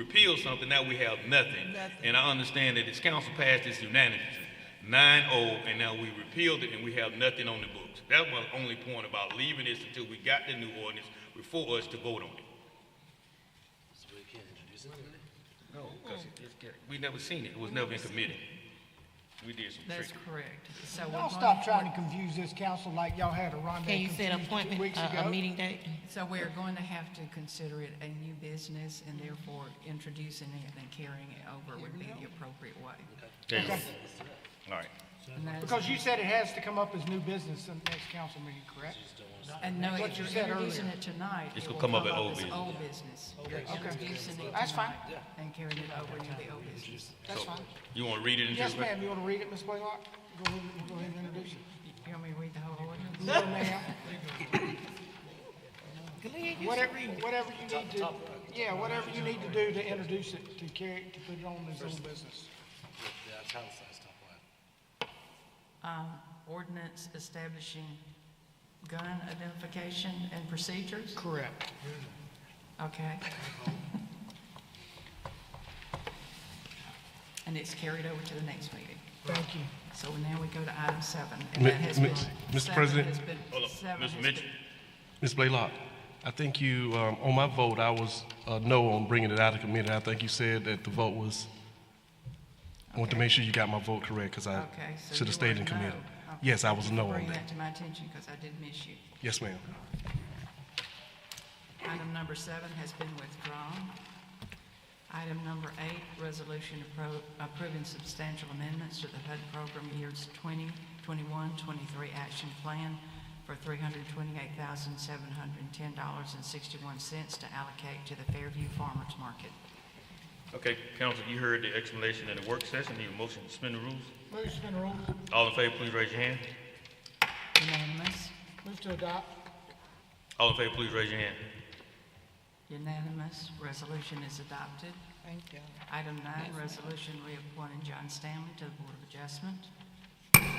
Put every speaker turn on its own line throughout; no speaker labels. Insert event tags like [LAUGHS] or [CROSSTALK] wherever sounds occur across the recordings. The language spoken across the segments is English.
repealed something, now we have nothing.
Nothing.
And I understand that this council passed this unanimously, nine oh, and now we repealed it and we have nothing on the books. That was the only point about leaving this until we got the new ordinance before us to vote on it. No, because we never seen it, it was never in committee. We did some
That's
tricking.
correct. So we're
Y'all
going
stop
to,
trying to confuse this council like y'all had a rendezvous.
Can you set an appointment,
Two
uh,
weeks
a- a
ago.
meeting date?
so we're going to have to consider it a new business and therefore introducing it and carrying it over would be the appropriate way.
Okay. All right.
And that's-
Because you said it has to come up as new business in the next council meeting, correct?
And no,
What
if
you
you're
said
introducing
earlier.
it tonight,
It's
it
gonna
will
come
come
up
up
at old
as
business.
old business. You're
Okay.
introducing it
That's fine.
tonight and carrying it over to the old business.
That's fine.
You want to read it into
Yes,
the record?
ma'am, you want to read it, Ms. Blaylock? Go ahead, and- go ahead and introduce it.
You want me to read the whole ordinance?
No, [LAUGHS] ma'am,
Glenn, you
whatever, whatever you need to, yeah, whatever you need to do to introduce it, to carry, it, to put it on as old business.
Um, Ordinance establishing gun identification and procedures?
Correct.
Okay. [LAUGHS] And it's carried over to the next meeting.
Thank you.
So now we go to item seven. and
Mi-
that has
mi-
been-
Mr.
seven
President?
has been-
Hold on,
seven
Mr.
has
Mitchell.
been-
Ms. Blaylock, I think you, um, on my vote, I was uh, no on bringing it out of committee. I think you said that the vote was, I want to make sure you got my vote correct because I
Okay, so
should
you
have stayed
were no.
in committee.
Okay.
Yes, I was no on
Bring
that.
that to my attention because I did miss you.
Yes, ma'am.
Item number seven has been withdrawn. Item number eight, resolution appro- approving substantial amendments to the HUD program years 20, 21, 23 action plan for $328,710.61 to allocate to the Fairview Farmers Market.
Okay, council, you heard the explanation in the work session, need a motion to suspend the rules?
Move to suspend the rules.
All in favor, please raise your hand.
Unanimous?
Move to adopt.
All in favor, please raise your hand.
Unanimous. Resolution is adopted. Item nine, resolution reappointing John Stanley to the Board of Adjustment.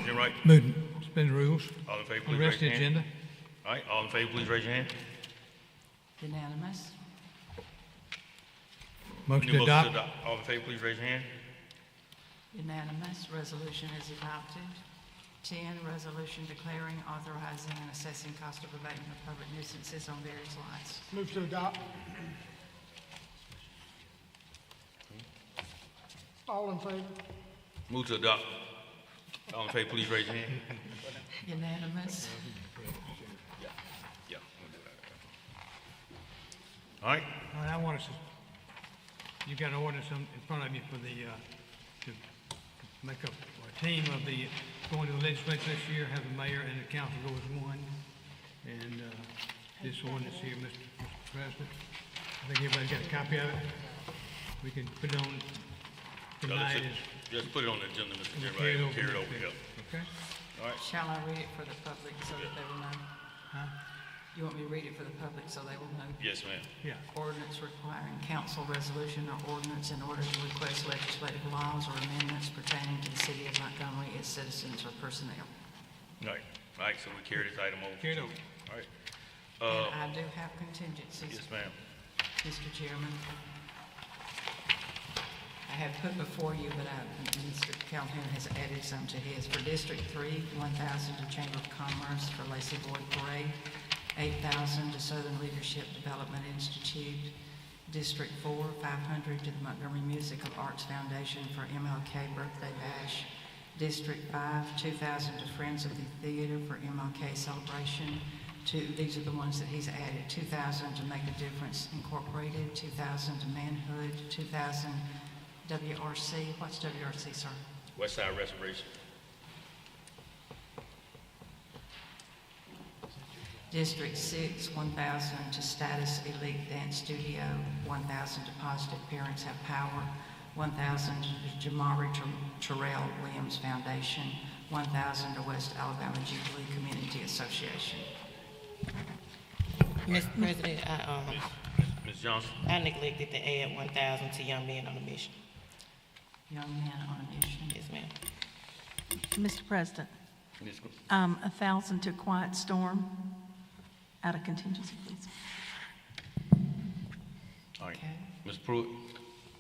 Jim Wright,
Move, to suspend the rules,
all in favor,
on
please
the rest
raise
of the
your hand.
agenda.
All right, all in favor, please raise your hand.
Unanimous.
Motion
New
to
motion to
adopt.
adopt. All in favor, please raise your hand.
Unanimous, resolution is adopted. 10, resolution declaring, authorizing, and assessing cost of abatement of public nuisances on various lots.
Move to adopt. All in favor?
Move to adopt. All in favor, please raise your hand.
Unanimous,
Yeah. All right,
All right, I want to, you've got an ordinance in in front of you for the, uh, to make up a team of the, going to the legislature this year, have the mayor and the council go as one. And uh, this ordinance here, Mr. Mr. President, I think everybody's got a copy of it. We can put it on
Y'all
tonight
just-
as,
just put it on the agenda, Mr. Jim
Carry it
Wright,
over.
carry it over, yeah.
okay?
shall I read it for the public so that they will know? You want me to read it for the public so they will know?
Yes, ma'am.
Yeah.
Ordinance requiring council resolution or ordinance in order to request legislative laws or amendments pertaining to the city of Montgomery, its citizens or personnel.
All right, all right, so we carry this item over.
Carry it over.
All right,
And I do have
Uh,
contingencies.
yes, ma'am.
Mr. Chairman. I have put before you, but I, Mr. Calhoun has added some to his. For District Three, one thousand to Chamber of Commerce for Lacey Boyd Parade, eight thousand to Southern Leadership Development Institute, District Four, five hundred to the Montgomery Musical Arts Foundation for MLK Birthday Bash, District Five, two thousand to Friends of the Theater for MLK Celebration, two, these are the ones that he's added, two thousand to Make a Difference Incorporated, two thousand to Manhood, two thousand WRC, what's WRC, sir?
West Side Restoration.
District Six, one thousand to Status Elite Dance Studio, one thousand to Positive Parents Have Power, one thousand to Jamari Ter- Terrell Williams Foundation, one thousand to West Alabama Jubilee Community Association.
Mr. President, I, um,
Ms. Johnson,
I neglected to add one thousand to young men on a mission.
Young men on a mission.
Yes, ma'am.
Mr. President,
Ms. Gr-
um, a thousand to Quiet Storm, out of contingency, please.
All right.
Okay.
Ms. Pruitt,